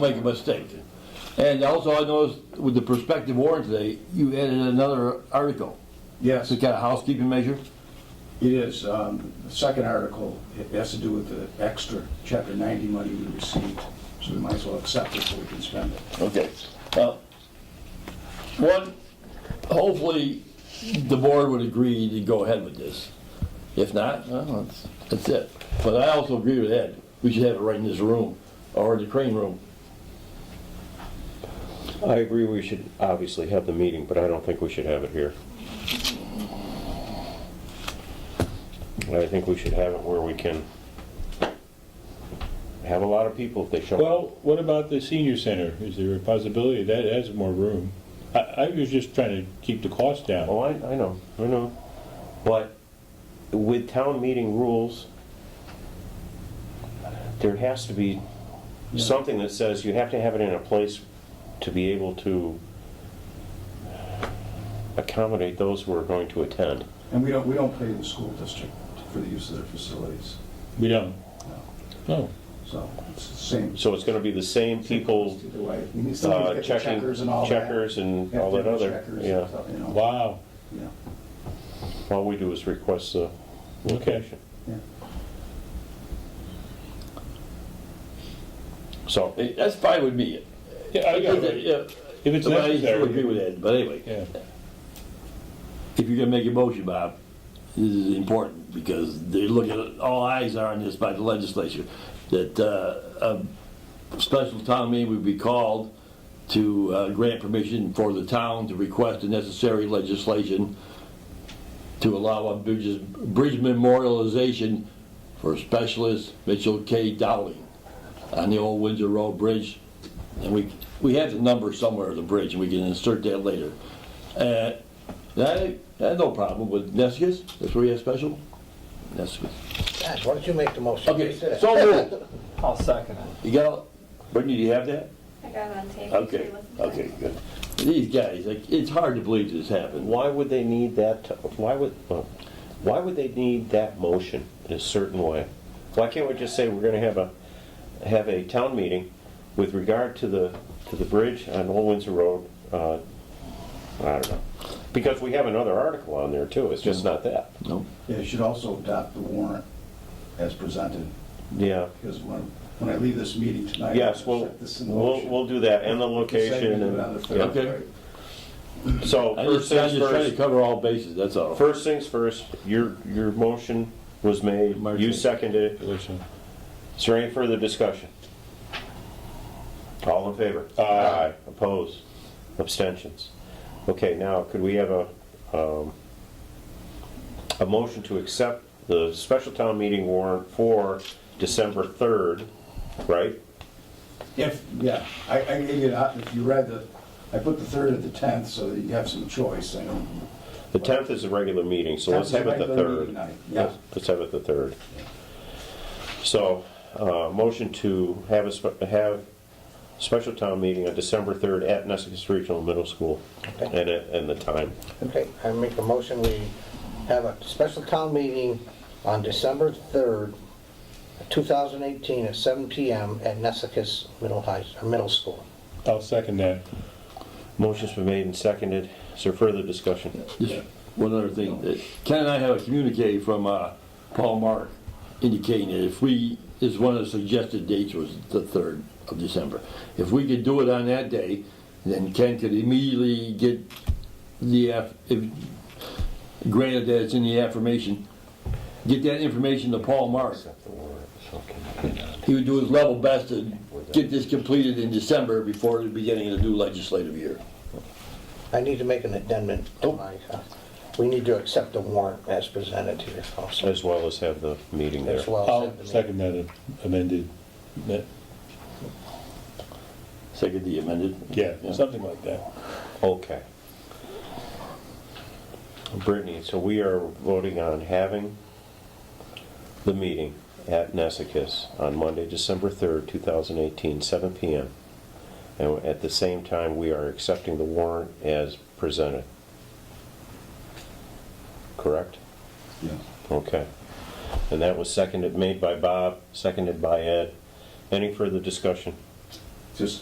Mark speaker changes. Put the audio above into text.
Speaker 1: make a mistake. And also, I noticed with the prospective warrant today, you added another article.
Speaker 2: Yes,
Speaker 1: It's a kind of housekeeping measure.
Speaker 2: it is. Um, The second article, it has to do with the extra Chapter 90 money we received, so we might as well accept it so we can spend it.
Speaker 1: Okay. Uh, One, hopefully, the board would agree to go ahead with this. If not, well, that's, that's it. But I also agree with Ed, we should have it right in this room, or the crane room.
Speaker 3: I agree we should obviously have the meeting, but I don't think we should have it here. I think we should have it where we can have a lot of people if they show up.
Speaker 4: Well, what about the senior center? Is there a possibility that has more room? I, I was just trying to keep the cost down.
Speaker 3: Oh, I, I know, I know. But with town meeting rules, there has to be something that says you have to have it in a place to be able to accommodate those who are going to attend.
Speaker 2: And we don't, we don't pay the school district for the use of their facilities,
Speaker 4: We don't.
Speaker 2: No.
Speaker 4: No.
Speaker 2: so it's the same.
Speaker 3: So it's going to be the same people
Speaker 2: Either way, we need
Speaker 3: uh,
Speaker 2: somebody to get the
Speaker 3: checking,
Speaker 2: checkers and all that.
Speaker 3: checkers and
Speaker 2: Have
Speaker 3: all that
Speaker 2: different
Speaker 3: other,
Speaker 2: checkers and
Speaker 3: yeah.
Speaker 2: stuff, you know.
Speaker 4: Oh, Wow.
Speaker 2: Yeah.
Speaker 3: All we do is request the location.
Speaker 2: Yeah.
Speaker 3: So,
Speaker 1: Eh, That's fine with me.
Speaker 4: Yeah, I got it.
Speaker 1: Yeah,
Speaker 4: If it's
Speaker 1: but I agree
Speaker 4: necessary.
Speaker 1: with Ed, but anyway.
Speaker 4: Yeah.
Speaker 1: if you're gonna make a motion, Bob, this is important, because they're looking, all eyes are on this by the legislature, that uh, a special town meeting would be called to uh, grant permission for the town to request the necessary legislation to allow a bridge bridge memorialization for specialist Mitchell K. Dowling on the old Windsor Road Bridge. And we, we have the number somewhere of the bridge, and we can insert that later. Uh, that, that no problem with Nescus, that's where you have special, Nescus.
Speaker 5: Gosh, why don't you make the motion?
Speaker 1: Okay, so moved.
Speaker 6: I'll second it.
Speaker 1: You got, Brittany, do you have that?
Speaker 7: I got it on tape.
Speaker 1: Okay, okay, good. These guys, like, it's hard to believe this happened.
Speaker 3: why would they need that, to- why would, well, why would they need that motion in a certain way? Why can't we just say we're gonna have a, have a town meeting with regard to the, to the bridge on Old Windsor Road? uh, I don't know. Because we have another article on there too, it's just not that.
Speaker 1: No,
Speaker 2: Yeah, you should also adopt the warrant as presented,
Speaker 3: Yeah.
Speaker 2: because when, when I leave this meeting tonight.
Speaker 3: Yes,
Speaker 2: I'll
Speaker 3: we'll,
Speaker 2: check this in
Speaker 3: we'll,
Speaker 2: motion.
Speaker 3: we'll do that, and the
Speaker 2: Same
Speaker 3: location,
Speaker 2: we do on the
Speaker 3: and,
Speaker 2: third,
Speaker 1: Okay.
Speaker 2: right?
Speaker 3: so,
Speaker 1: I
Speaker 3: first
Speaker 1: just, I
Speaker 3: things
Speaker 1: just trying to
Speaker 3: first,
Speaker 1: cover all bases, that's all.
Speaker 3: first things first, your, your motion was made, you
Speaker 1: Motion.
Speaker 3: seconded it,
Speaker 4: Listen.
Speaker 3: is there any further discussion? All in favor? Aye. Oppose? Abstentions? Okay, now, could we have a, um, a motion to accept the special town meeting warrant for December 3rd, right?
Speaker 2: If, yeah, I, I gave you, that. if you read the, I put the third at the tenth so that you have some choice, I don't.
Speaker 3: The 10th is a regular meeting, so let's have it the 3rd.
Speaker 2: Yeah,
Speaker 3: Let's have it the third. So, uh, motion to have a, spe- have special town meeting on December 3rd at Nessus Regional Middle School and, it- and the time.
Speaker 5: Okay, I make a motion, we have a special town meeting on December 3rd, 2018, at 7 PM at Nesicus Middle High, or Middle School.
Speaker 4: I'll second that.
Speaker 3: Motion's been made and seconded. Is there further discussion?
Speaker 1: Just one other thing, that Ken and I have a communique from uh, Paul Mark indicating that if we, is one of the suggested dates was the 3rd of December. If we could do it on that day, then Ken could immediately get the, aff- if- granted that it's in the affirmation, get that information to Paul Mark. He would do his level best to get this completed in December before the beginning of the new legislative year.
Speaker 5: I need to make an addendum to my, uh, we need to accept the warrant as presented here also,
Speaker 3: As well as have the meeting there.
Speaker 5: as well.
Speaker 4: I'll
Speaker 5: as the meeting.
Speaker 4: second that amended, that-
Speaker 1: Second, the amended?
Speaker 4: yeah, something like that.
Speaker 3: Okay. Brittany, so we are voting on having the meeting at Nesicus on Monday, December 3rd, 2018, 7 PM. And at the same time, we are accepting the warrant as presented. Correct?
Speaker 2: yeah.
Speaker 3: Okay. And that was seconded, made by Bob, seconded by Ed. Any further discussion?
Speaker 2: just